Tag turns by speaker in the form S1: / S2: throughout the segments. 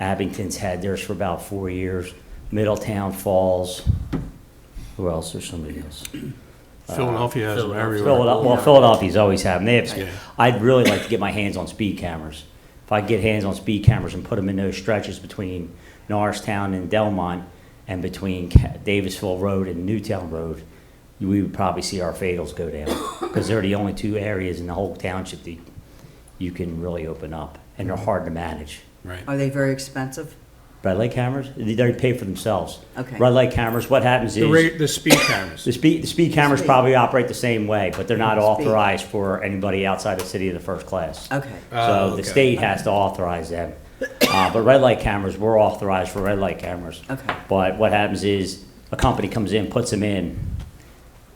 S1: Abington's had theirs for about four years. Middletown Falls, who else? There's somebody else.
S2: Philadelphia has them everywhere.
S1: Philadelphia, well, Philadelphia's always had them. They have,
S2: Yeah.
S1: I'd really like to get my hands on speed cameras. If I could get hands on speed cameras and put them in those stretches between Norristown and Delmont and between Ca- Davisville Road and Newtown Road, we would probably see our fatals go down because they're the only two areas in the whole township that you can really open up and they're hard to manage.
S2: Right.
S3: Are they very expensive?
S1: Red light cameras, they they pay for themselves.
S3: Okay.
S1: Red light cameras, what happens
S2: The
S1: is.
S2: rate, the speed cameras.
S1: The speed, the speed cameras
S3: Speed.
S1: probably operate the same way, but they're not
S3: Speed.
S1: authorized for anybody outside the city of the first class.
S3: Okay,
S2: Oh,
S1: So
S2: okay.
S1: the state has to authorize them. Uh, but red light cameras, we're authorized for red light cameras.
S3: Okay.
S1: But what happens is, a company comes in, puts them in,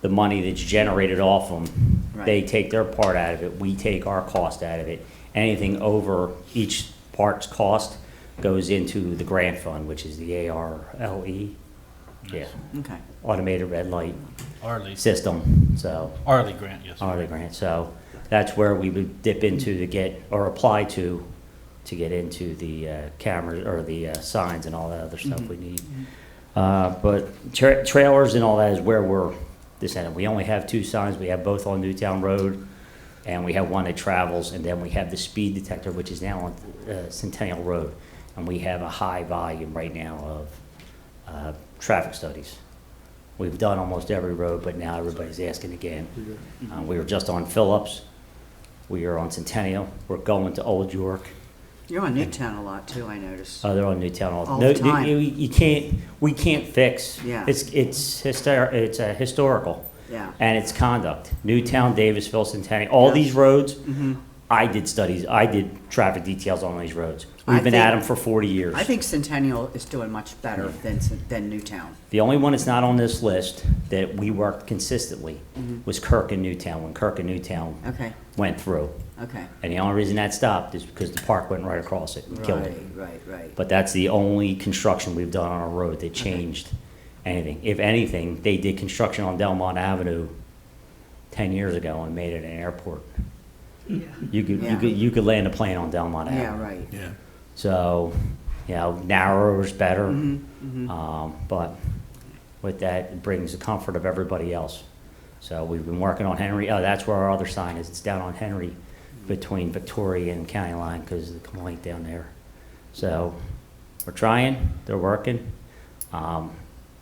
S1: the money that's generated off them, they
S3: Right.
S1: take their part out of it, we take our cost out of it. Anything over each part's cost goes into the grant fund, which is the ARLE. E. Yeah,
S3: okay.
S1: automated red light
S4: Arlie,
S1: system, so,
S4: Arlie Grant, yes.
S1: hourly grant, so that's where we would dip into to get, or apply to, to get into the uh, cameras, or the uh, signs and all that other stuff we need. Uh, But tra- trailers and all that is where we're, this, and we only have two signs, we have both on Newtown Road, and we have one that travels, and then we have the speed detector, which is now on uh, Centennial Road. And we have a high volume right now of uh, traffic studies. We've done almost every road, but now everybody's asking again. Uh, We were just on Phillips, we are on Centennial, we're going to Old York,
S3: You're on Newtown a lot too, I noticed.
S1: uh, they're on Newtown.
S3: All the
S1: No,
S3: time.
S1: You you can't, we can't fix.
S3: Yeah.
S1: It's, it's hyster, it's uh, historical.
S3: Yeah.
S1: And it's conduct. Newtown, Davisville, Centennial, all
S3: Yeah. Mm-hmm.
S1: these roads, I did studies, I did traffic details on these roads.
S3: I
S1: We've been at them
S3: think-
S1: for forty years.
S3: I think Centennial is doing much better than, Cen- than Newtown.
S1: The only one that's not on this list that we worked consistently
S3: Mm-hmm.
S1: was Kirk and Newtown, when Kirk and Newtown
S3: Okay,
S1: went through.
S3: okay.
S1: And the only reason that stopped is because the park went right across it and killed
S3: Right,
S1: it.
S3: right, right.
S1: But that's the only construction we've done on a road that changed anything. If anything, they did construction on Delmont Avenue ten years ago and made it an airport. You could, you
S3: Yeah.
S1: could, you could land a plane on Delmont
S3: Yeah,
S1: Avenue.
S3: right.
S2: Yeah.
S1: So, you know, narrower is better.
S3: Mhm, mhm.
S1: Um, but with that, it brings the comfort of everybody else. So we've been working on Henry, oh, that's where our other sign is, it's down on Henry between Victoria and County Line because of the complaint down there. So we're trying, they're working, um,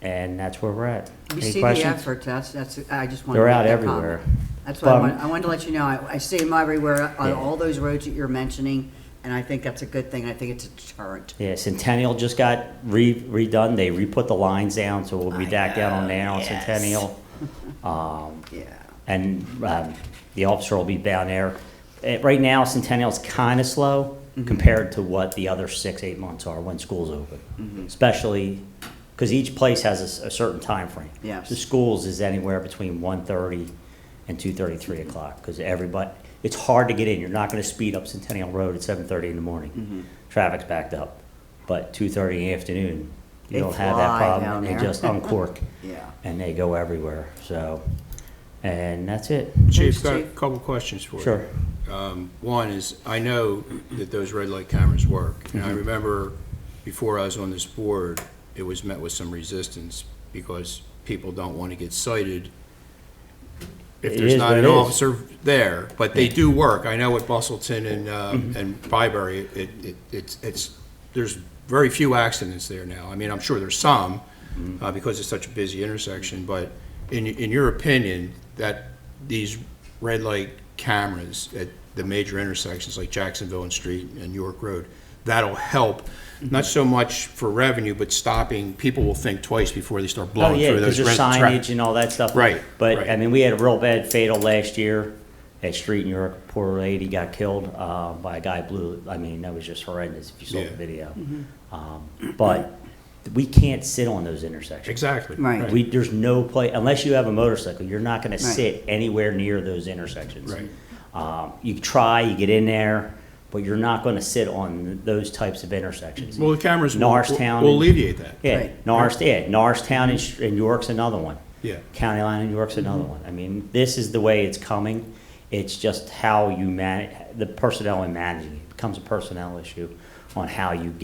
S1: and that's where we're at. Any
S3: You see the
S1: questions?
S3: effort, that's, that's, I just wanted to
S1: They're out
S3: make that comment.
S1: everywhere.
S3: That's why I
S1: But-
S3: wanted, I wanted to let you know, I, I see them everywhere on
S1: Yeah.
S3: all those roads that you're mentioning, and I think that's a good thing, I think it's a deterrent.
S1: Yeah, Centennial just got re- redone, they re-put the lines down, so we'll be
S3: I
S1: back down on
S3: know,
S1: there on
S3: yes.
S1: Centennial. Um,
S3: Yeah,
S1: and um, the officer will be down there. Eh, Right now, Centennial's kind of slow
S3: Mm-hmm.
S1: compared to what the other six, eight months are when school's
S3: Mm-hmm.
S1: open. Especially, because each place has a s- a certain time frame.
S3: Yes.
S1: The schools is anywhere between 1:30 and 2:30, 3
S3: Mm-hmm.
S1: o'clock, because everybody, it's hard to get in. You're not going to speed up Centennial Road at 7:30 in the
S3: Mm-hmm.
S1: morning. Traffic's backed up. But 2:30 in the afternoon, you
S3: They
S1: don't have that
S3: fly
S1: problem.
S3: down
S1: They
S3: there.
S1: just uncork
S3: yeah.
S1: and they go everywhere. So, and that's it.
S2: Chief, got a
S3: Chief.
S2: couple questions for you.
S1: Sure.
S2: Um, One is, I know that those red light cameras work. And I remember before I was on this board, it was met with some resistance because people don't want to get cited if
S1: It
S2: there's
S1: is
S2: not
S1: what
S2: an
S1: it is.
S2: officer there. But they do work. I know at Bustleton and,
S1: Mm-hmm.
S2: uh, and Byberry, it, it, it's, it's, there's very few accidents there now. I mean, I'm sure there's some,
S1: Mm-hmm.
S2: uh, because it's such a busy intersection, but in, in your opinion, that these red light cameras at the major intersections like Jacksonville and Street and York Road, that'll help,
S1: Mm-hmm.
S2: not so much for revenue, but stopping, people will think twice before they start
S1: Oh,
S2: blowing
S1: yeah,
S2: through
S1: because
S2: those red
S1: there's
S2: tra-
S1: signage and all that stuff.
S2: Right,
S1: But,
S2: right.
S1: I mean, we had a real bad fatal last year at Street in York. Poor lady got killed uh, by a guy blew, I mean, that was just horrendous if you saw
S2: Yeah.
S1: the video. Um, But we can't sit on those intersections.
S2: Exactly.
S3: Right.
S1: We, there's no place, unless you have a motorcycle, you're not gonna
S3: Right.
S1: sit anywhere near those intersections.
S2: Right.
S1: Um, You try, you get in there, but you're not gonna sit on those types of intersections.
S2: Well, the cameras will,
S1: Norristown
S2: will
S1: and-
S2: alleviate that.
S1: Yeah,
S3: Right.
S1: Norris, yeah, Norristown and Sh- and York's another one.
S2: Yeah.
S1: County line in York's another one. I mean, this is the way it's coming. It's just how you man, the personnel and managing. It becomes a personnel issue on how you